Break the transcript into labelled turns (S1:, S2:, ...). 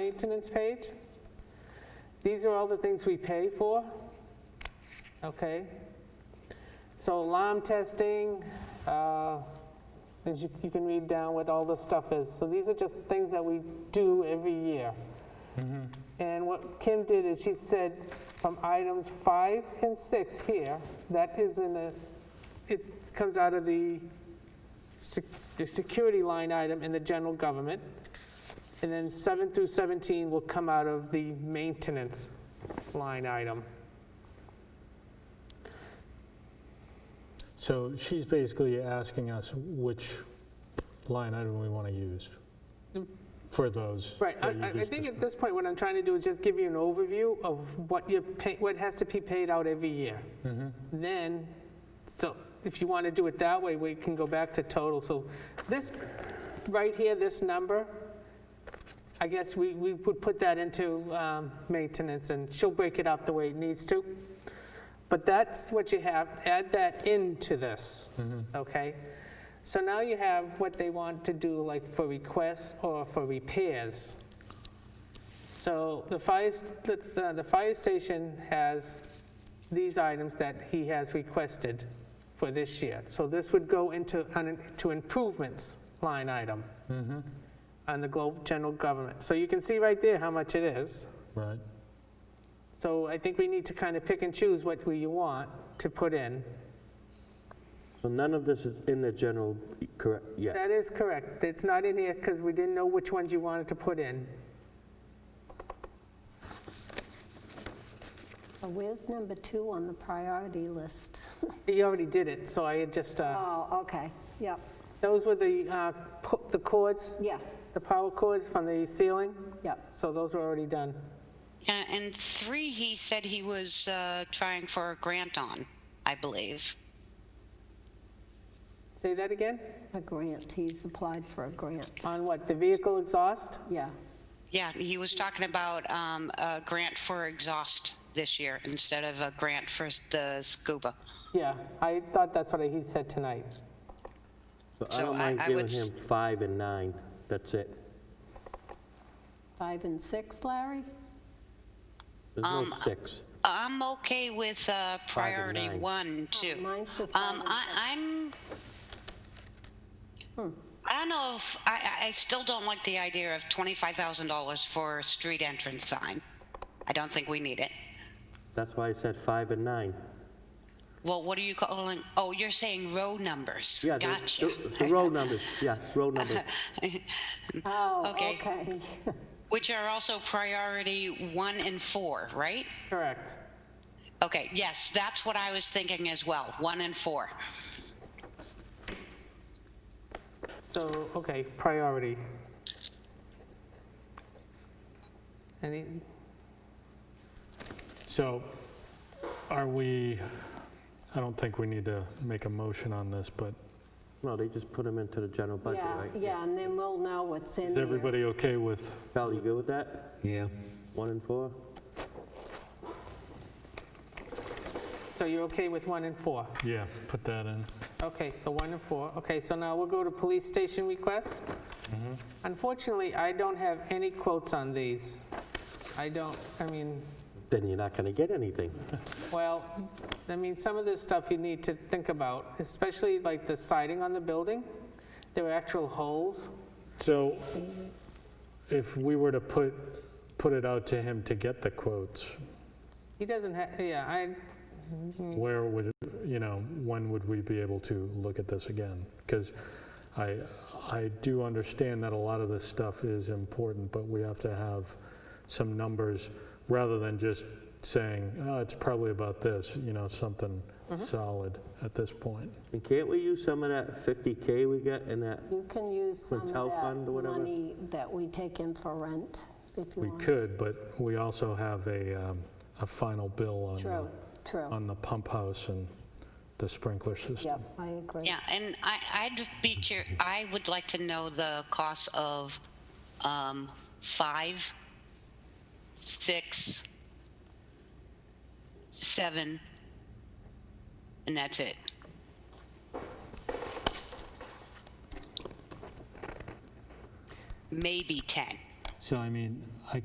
S1: maintenance page. These are all the things we pay for, okay? So alarm testing, uh, as you you can read down what all the stuff is. So these are just things that we do every year. And what Kim did is she said from items five and six here, that is in a, it comes out of the, sec- the security line item in the general government. And then seven through 17 will come out of the maintenance line item.
S2: So she's basically asking us which line item we want to use for those.
S1: Mm. Right, I-
S2: that you
S1: I, I
S2: just
S1: think
S2: described.
S1: at this point, what I'm trying to do is just give you an overview of what you pay, what has to be paid out every year. Then, so if you want to do it that way, we can go back to total. So this, right here, this number, I guess we, we would put that into um, maintenance and she'll break it up the way it needs to. But that's what you have, add that into this, okay? So now you have what they want to do, like for requests or for repairs. So the fire, st- let's, uh, the fire station has these items that he has requested for this year. So this would go into, un- to improvements line item on the Globe General Government. So you can see right there how much it is.
S2: Right,
S1: So I think we need to kind of pick and choose what we want to put in.
S3: So none of this is in the general, correct, yeah.
S1: That is correct. It's not in here because we didn't know which ones you wanted to put in.
S4: Uh, Where's number two on the priority list?
S1: You already did it, so I had just, uh,
S4: Oh, okay, yep,
S1: those were the, uh, pu- the cords,
S4: yeah,
S1: the power cords from the ceiling.
S4: yep.
S1: So those were already done.
S5: Yeah, and three, he said he was uh, trying for a grant on, I believe.
S1: Say that again?
S4: A grant, he's applied for a grant,
S1: On what, the vehicle exhaust?
S4: yeah.
S5: Yeah, he was talking about um, a grant for exhaust this year instead of a grant for the scuba.
S1: Yeah, I thought that's what he said tonight.
S3: So I
S5: So
S3: don't
S5: I-
S3: mind
S5: I
S3: giving
S5: would-
S3: him five and nine, that's it.
S4: Five and six, Larry?
S3: There's no
S5: Um,
S3: six.
S5: I'm okay with uh, priority
S3: nine.
S5: one, too.
S4: Mine says Oh, five
S5: Um,
S4: and
S5: I,
S4: six. Hmm.
S5: I'm. I don't know if I, I- I still don't like the idea of twenty-five thousand dollars for a street entrance sign. I don't think we need it.
S3: That's why I said five and nine.
S5: Well, what are you calling? Oh, you're saying row numbers.
S3: Yeah, the-
S5: gotcha.
S3: the- The roll numbers, yeah, roll numbers.
S4: Oh,
S5: Okay.
S4: okay.
S5: Which are also priority one and four, right?
S1: Correct.
S5: Okay, yes, that's what I was thinking as well. One and four.
S1: So, okay, priorities. Any,
S2: so are we, I don't think we need to make a motion on this, but
S3: No, they just put them into the general budget,
S4: Yeah,
S3: right?
S4: yeah, and then we'll know what's in
S2: is
S4: there.
S2: everybody okay with,
S3: Val, you good with that?
S6: Yeah.
S3: One and four?
S1: so you're okay with one and four?
S2: yeah, put that in?
S1: Okay, so one and four. Okay, so now we'll go to police station requests. Unfortunately, I don't have any quotes on these. I don't, I mean,
S3: Then you're not going to get anything.
S1: well, I mean, some of this stuff you need to think about, especially like the siding on the building. There were actual holes.
S2: So if we were to put, put it out to him to get the quotes,
S1: He doesn't have, yeah, I,
S2: where would, you know, when would we be able to look at this again? Because I, I do understand that a lot of this stuff is important, but we have to have some numbers rather than just saying, oh, it's probably about this, you know, something solid at this point.
S3: And can't we use some of that 50K we got in that?
S4: You can use some
S3: Hotel
S4: of that
S3: fund or whatever?
S4: money that we take in for rent, if you
S2: We
S4: want.
S2: could, but we also have a, um, a final bill on,
S4: True,
S2: the-
S4: true,
S2: on the pump house and the sprinkler system.
S4: yep, I agree.
S5: Yeah, and I, I'd be curious. I would like to know the cost of um, five, six, seven, and that's it. Maybe ten.
S2: So I mean, I